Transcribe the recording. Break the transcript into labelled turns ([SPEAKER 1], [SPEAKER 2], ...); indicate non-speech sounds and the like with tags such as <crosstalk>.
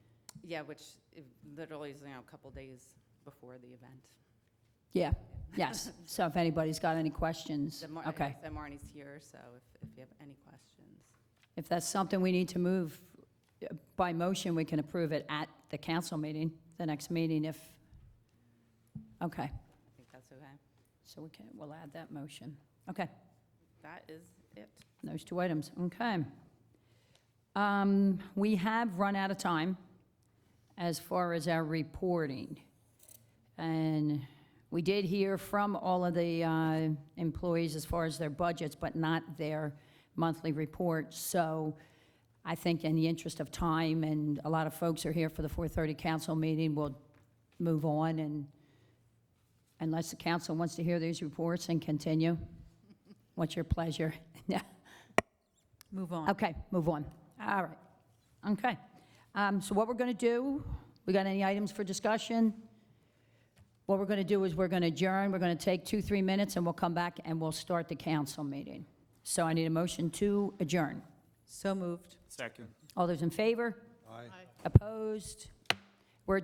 [SPEAKER 1] Yeah, which it literally is, you know, a couple days before the event.
[SPEAKER 2] Yeah, yes. So if anybody's got any questions,
[SPEAKER 1] So Mar-
[SPEAKER 2] okay.
[SPEAKER 1] So Marnie's here, so if, if you have any questions.
[SPEAKER 2] If that's something we need to move uh, by motion, we can approve it at the council meeting, the next meeting if, okay.
[SPEAKER 1] I think that's okay.
[SPEAKER 2] So we can, we'll add that motion. Okay,
[SPEAKER 1] That is it.
[SPEAKER 2] those two items, okay. Um, We have run out of time as far as our reporting. And we did hear from all of the uh, employees as far as their budgets, but not their monthly reports. So I think in the interest of time, and a lot of folks are here for the 4:30 council meeting, we'll move on and unless the council wants to hear these reports and continue. What's your pleasure? <laughs> Yeah.
[SPEAKER 3] Move on.
[SPEAKER 2] Okay, move on. All right. Okay. Um, So what we're going to do, we got any items for discussion? What we're going to do is we're going to adjourn, we're going to take two, three minutes, and we'll come back and we'll start the council meeting. So I need a motion to adjourn.
[SPEAKER 3] So moved.
[SPEAKER 4] Second.
[SPEAKER 2] All those in favor?
[SPEAKER 4] Aye.
[SPEAKER 2] Opposed?